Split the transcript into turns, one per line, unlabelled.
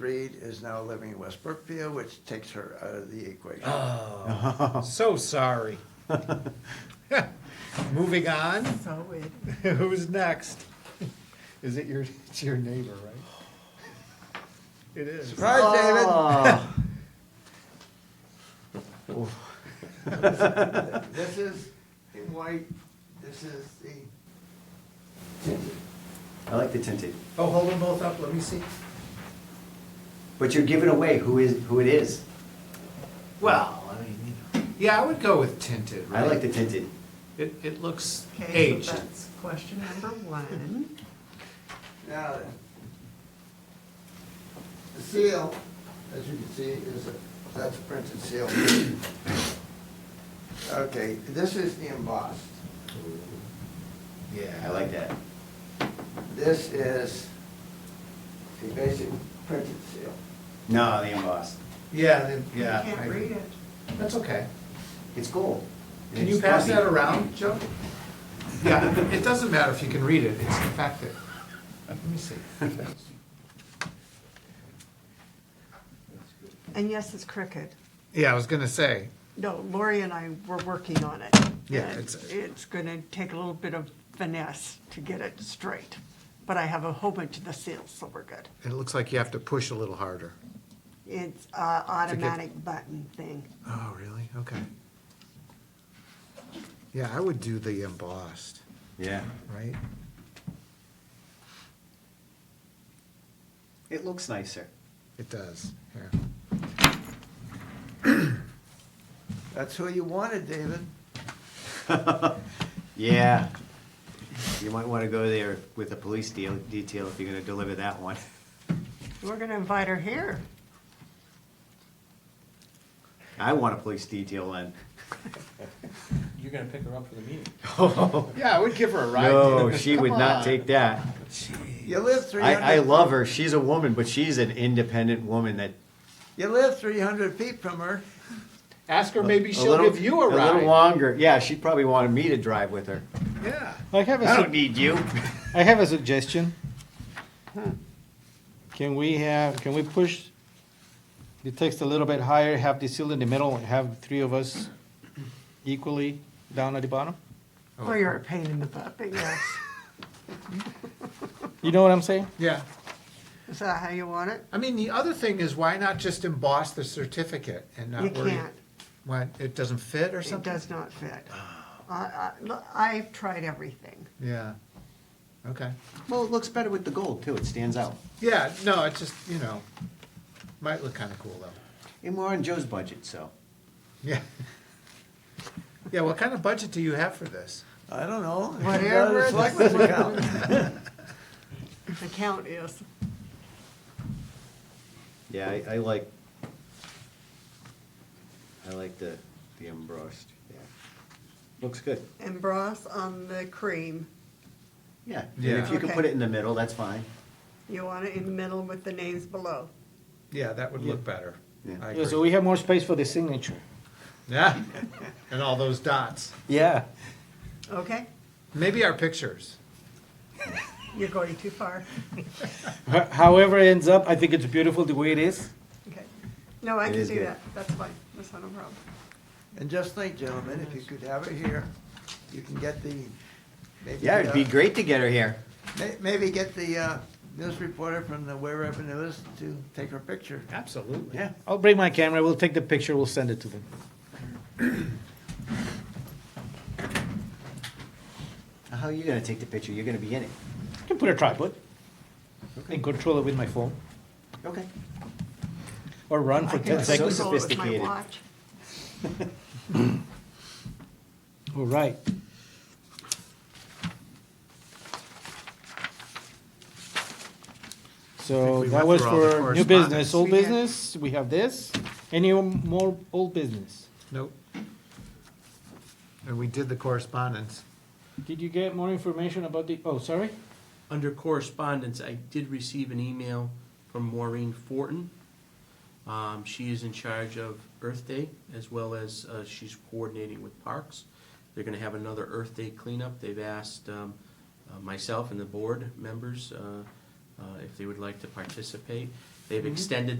Reed is now living in West Brookfield, which takes her out of the equation.
Oh, so sorry. Moving on,
So it,
who's next? Is it your, it's your neighbor, right? It is.
Surprise, David! This is in white, this is the,
Tinted. I like the tinted.
Oh, hold them both up, let me see.
But you're giving away who is who it is.
Well, I mean, you know. yeah, I would go with tinted, right?
I like the tinted.
It, it looks
okay,
aged.
so that's question number one.
now then. The seal, as you can see, is, a- that's a printed seal. Okay, this is the embossed.
Yeah,
I like that.
This is the basic printed seal.
No, the embossed.
Yeah, then- yeah.
You
Uh, I
can't
agree.
read it.
That's okay.
It's gold. And
Can you
it's
pass
fluffy.
that around, Joe? Yeah, it doesn't matter if you can read it, it's the fact that, let me see.
And yes, it's crooked.
Yeah, I was gonna say,
No, Lori and I were working on it.
Yeah,
And
it's-
It's gonna take a little bit of finesse to get it straight, but I have a whole bunch of the seals, so we're good.
it looks like you have to push a little harder.
It's a automatic button thing.
Oh, really? Okay. Yeah, I would do the embossed,
Yeah.
right?
It looks nicer.
It does, yeah.
That's who you wanted, David.
Yeah. You might want to go there with a police deal, detail if you're going to deliver that one.
We're gonna invite her here.
I want a police detail in.
You're gonna pick her up for the meeting.
Yeah, I would give her a ride.
No,
dude.
she would
Come
not
on.
take that.
You lived three hundred.
I, I love her. She's a woman, but she's an independent woman that
You lived three hundred feet from her.
Ask her maybe
a
she'll
little-
give you a
A little
ride.
longer. Yeah, she probably wanted me to drive with her.
Yeah.
I have a,
I don't
sug-
need you.
I have a suggestion. Can we have, can we push the text a little bit higher, have the seal in the middle, and have three of us equally down at the bottom?
Or you're a pain in the butt, but yes.
You know what I'm saying?
Yeah.
Is that how you want it?
I mean, the other thing is why not just emboss the certificate and not
You
worry?
can't.
What, it doesn't fit or
It
something?
does not fit. I, I, look, I've tried everything.
Yeah. Okay.
Well, it looks better with the gold too. It stands out.
Yeah, no, it's just, you know, might look kind of cool though.
And we're on Joe's budget, so.
Yeah. Yeah, what kind of budget do you have for this?
I don't know.
Whatever
It's
the-
like with the count.
The count is,
Yeah, I, I like. I like the the embossed. Yeah. Looks good.
and broth on the cream.
Yeah.
Yeah.
And if you can
Okay.
put it in the middle, that's fine.
You want it in the middle with the names below.
Yeah, that would look better.
Yeah.
I
Yeah, So
agree.
we have more space for the signature.
Yeah, and all those dots.
Yeah.
Okay?
Maybe our pictures.
You're going too far.
However it ends up, I think it's beautiful the way it is.
Okay. No, I
It
can
is
do
good.
that. That's fine. That's not a problem.
And just think, gentlemen, if you could have it here, you can get the, maybe.
Yeah, it'd be
uh,
great to get her here.
may- Maybe get the uh, news reporter from the wherever news to take her picture.
Absolutely.
Yeah.
I'll bring my camera, we'll take the picture, we'll send it to them.
How are you gonna take the picture? You're gonna be in it.
I can put a tripod and control it with my phone,
Okay.
or run
I
for
can
ten
so
seconds.
control it with my
sophisticated.
watch.
All right. So
we went
that was
through all the
for new
correspondence.
business, old
We did.
business, we have this. Any more old business?
Nope. And we did the correspondence.
Did you get more information about the, oh, sorry?
Under correspondence, I did receive an email from Maureen Fortin. Um, she is in charge of Earth Day as well as, uh, she's coordinating with parks. They're gonna have another Earth Day cleanup. They've asked, um, uh, myself and the board members, uh, uh, if they would like to participate. They've extended